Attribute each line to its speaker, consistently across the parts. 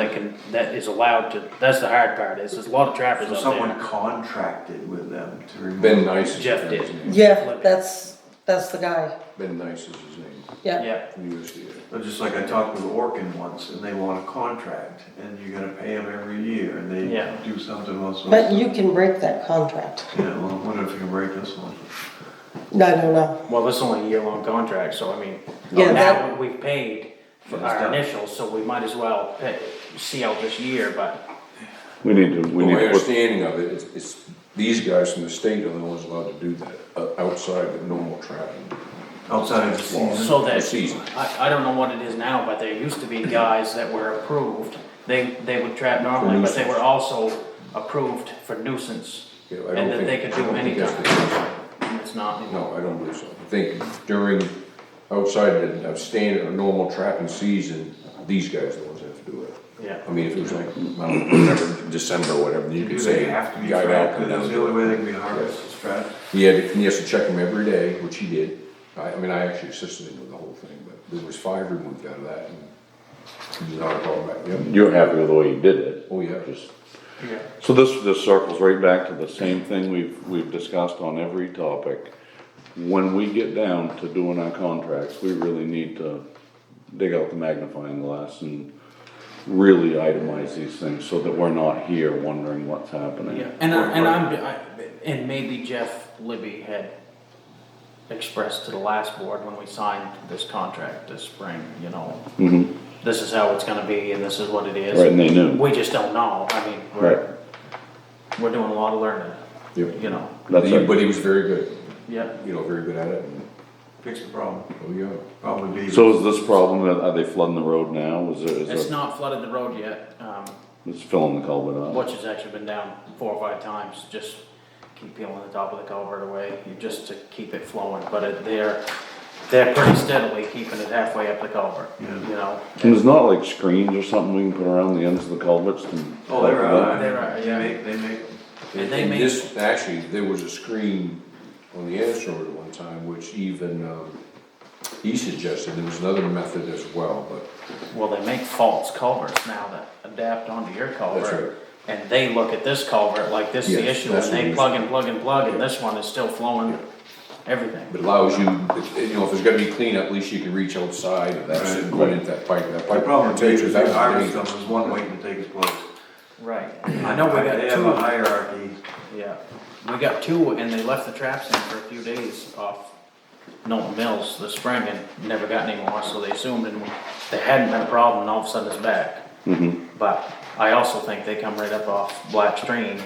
Speaker 1: then that is allowed to, that's the hard part, is there's a lot of trappers
Speaker 2: So
Speaker 1: out
Speaker 2: someone
Speaker 1: there.
Speaker 2: contracted with them to remove.
Speaker 3: Ben Nice. is
Speaker 1: Jeff
Speaker 3: his
Speaker 1: did.
Speaker 3: name.
Speaker 4: Yeah, that's, that's the guy,
Speaker 3: Ben Nice is his name,
Speaker 4: yeah.
Speaker 1: Yeah,
Speaker 3: from USDA.
Speaker 2: But Just like I talked with Orkin once, and they want a contract, and you gotta pay them every year, and they
Speaker 1: Yeah.
Speaker 2: do something else. with
Speaker 4: But
Speaker 2: it.
Speaker 4: you can break that contract.
Speaker 2: Yeah, well, I wonder if you can break this one.
Speaker 4: No, no, no.
Speaker 1: well, this is only a year-long contract, so I mean,
Speaker 4: Yeah,
Speaker 1: now
Speaker 4: that-
Speaker 1: we've paid for
Speaker 2: Yeah, it's
Speaker 1: our
Speaker 2: done.
Speaker 1: initials, so we might as well pay- see out this year, but,
Speaker 5: We need to, we
Speaker 3: Well,
Speaker 5: need
Speaker 3: My
Speaker 5: to put,
Speaker 3: understanding of it, it's, it's, these guys from the state are the ones allowed to do that, uh, outside of normal trapping.
Speaker 2: Outside of the season,
Speaker 1: so that.
Speaker 3: The season.
Speaker 1: I, I don't know what it is now, but there used to be guys that were approved, they, they would trap normally, but they were also approved for nuisance.
Speaker 3: Yeah, I don't
Speaker 1: And that
Speaker 3: think-
Speaker 1: they could
Speaker 3: I
Speaker 1: do
Speaker 3: don't
Speaker 1: any
Speaker 3: think that's the
Speaker 1: time, and it's not.
Speaker 3: No, I don't believe so. I think during, outside of of standard or normal trapping season, these guys are the ones that have to do it.
Speaker 1: Yeah.
Speaker 3: I mean, if it was like, I don't know, whatever, December, or whatever, you could say,
Speaker 2: they have to be
Speaker 3: guy out,
Speaker 2: trapped,
Speaker 3: come
Speaker 2: that's
Speaker 3: down.
Speaker 2: the only way they can be harvested, is trapped.
Speaker 3: He had, and he has to check them every day, which he did. I, I mean, I actually assisted him with the whole thing, but there was five removed out of that, and it was not a problem back then.
Speaker 5: you're happy with the way you did it.
Speaker 3: Oh, yeah.
Speaker 5: Just-
Speaker 1: Yeah.
Speaker 5: So this, this circles right back to the same thing we've, we've discussed on every topic. When we get down to doing our contracts, we really need to dig out the magnifying glass and really itemize these things so that we're not here wondering what's happening.
Speaker 1: Yeah, and I, and I'm, I, and maybe Jeff Libby had expressed to the last board when we signed this contract this spring, you know,
Speaker 5: Mhm.
Speaker 1: this is how it's gonna be and this is what it is.
Speaker 5: Right, and they knew.
Speaker 1: We just don't know, I mean,
Speaker 5: Right,
Speaker 1: we're, we're doing a lot of learning,
Speaker 3: Yep.
Speaker 1: you know,
Speaker 5: that's
Speaker 3: He-
Speaker 5: it.
Speaker 3: But he was very good,
Speaker 1: yeah.
Speaker 3: you know, very good at it, and,
Speaker 2: Fix the problem,
Speaker 3: oh, yeah.
Speaker 2: probably be.
Speaker 5: So is this problem, that- are they flooding the road now? Is there, is
Speaker 1: It's
Speaker 5: there,
Speaker 1: not flooded the road yet, um,
Speaker 5: it's filling the culvert up?
Speaker 1: which has actually been down four or five times, just keep peeling the top of the culvert away, just to keep it flowing, but it, they're, they're pretty steadily keeping it halfway up the culvert, you
Speaker 2: Yeah.
Speaker 1: know?
Speaker 5: And there's not like screens or something we can put around the ends of the culverts to.
Speaker 2: Oh, they're out,
Speaker 1: They're out,
Speaker 2: they
Speaker 1: yeah.
Speaker 2: make, they make them.
Speaker 1: And they
Speaker 3: And
Speaker 1: make-
Speaker 3: this, actually, there was a screen on the Annis Road at one time, which even, um, he suggested, there was another method as well, but
Speaker 1: Well, they make false culverts now that adapt onto your
Speaker 3: That's right.
Speaker 1: culvert. And they look at this culvert like this is the
Speaker 3: Yes,
Speaker 1: issue,
Speaker 3: that's
Speaker 1: and
Speaker 3: what it
Speaker 1: they
Speaker 3: is.
Speaker 1: plug and plug and plug, and this one is still flowing everything.
Speaker 3: But allows you, you know, if there's gonna be cleanup, at least you can reach outside of that,
Speaker 2: Right.
Speaker 3: and run into that pipe, that
Speaker 2: The
Speaker 3: pipe.
Speaker 2: problem is, if
Speaker 3: That
Speaker 2: they
Speaker 3: was
Speaker 2: harvest
Speaker 3: dangerous.
Speaker 2: them, there's one waiting to take its place.
Speaker 1: Right. I know we
Speaker 2: They have a
Speaker 1: got
Speaker 2: hierarchy,
Speaker 1: two, yeah, we got two, and they left the traps in for a few days off Norton Mills this spring and never got any more, so they assumed, and there hadn't been a problem, and all of a sudden it's back.
Speaker 3: Mm-hmm.
Speaker 1: But I also think they come right up off Black Stream,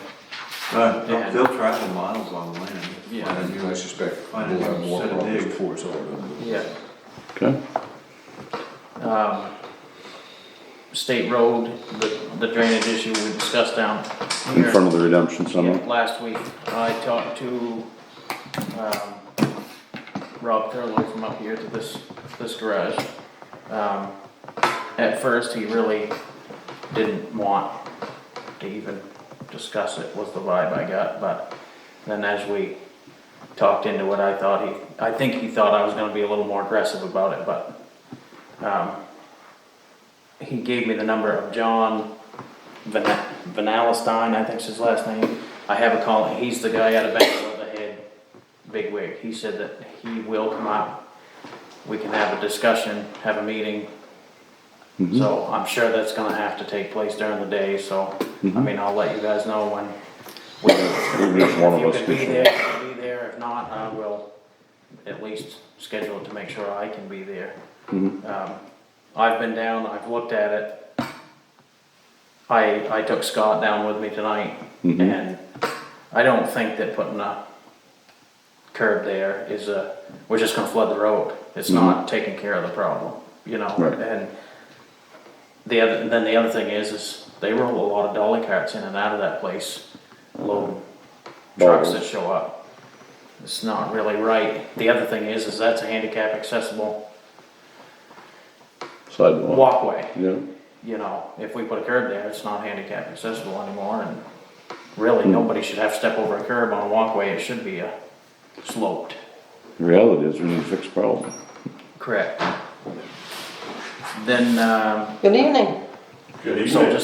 Speaker 2: but
Speaker 1: Yeah.
Speaker 2: they'll travel miles on the land.
Speaker 1: Yeah.
Speaker 2: And
Speaker 3: And I
Speaker 2: you-
Speaker 3: suspect we'll
Speaker 2: Fine,
Speaker 3: have more
Speaker 2: set a
Speaker 3: problems
Speaker 2: dig.
Speaker 3: before it's all done.
Speaker 1: yeah.
Speaker 5: Okay.
Speaker 1: um, State Road, the the drainage issue we discussed down
Speaker 5: In
Speaker 1: here.
Speaker 5: front of the redemption
Speaker 1: Yeah,
Speaker 5: center?
Speaker 1: Last week, I talked to, um, Rob Thurlow from up here to this, this garage. Um, At first, he really didn't want to even discuss it, was the vibe I got, but then as we talked into it, I thought he, I think he thought I was gonna be a little more aggressive about it, but, um, he gave me the number of John Van Vanalstein, I think's his last name. I have a call, he's the guy out of Bangor, the head big wig. He said that he will come out. We can have a discussion, have a meeting. So I'm sure that's gonna have to take place during the day, so, I mean, I'll let you guys know when.
Speaker 5: Even if one of
Speaker 1: If you
Speaker 5: us
Speaker 1: could
Speaker 5: can-
Speaker 1: be there, you can be there, if not, I will at least schedule it to make sure I can be there.
Speaker 5: Mm-hmm.
Speaker 1: Um, I've been down, I've looked at it, I, I took Scott down with me tonight,
Speaker 5: Mm-hmm.
Speaker 1: and I don't think that putting a curb there is a, we're just gonna flood the road. It's not taking care of the problem, you know?
Speaker 5: Mm-hmm. Right.
Speaker 1: And the other, then the other thing is, is they roll a lot of dolly carts in and out of that place, loading trucks that show up. It's not really right. The other thing is, is that's a handicap accessible
Speaker 5: Sidewalk.
Speaker 1: walkway
Speaker 5: Yeah,
Speaker 1: you know, if we put a curb there, it's not handicap accessible anymore, and really, nobody should have to step over a curb on a walkway, it should be a sloped.
Speaker 5: the reality is we need to fix the problem.
Speaker 1: Correct. Then, um,
Speaker 4: Good evening.
Speaker 1: so just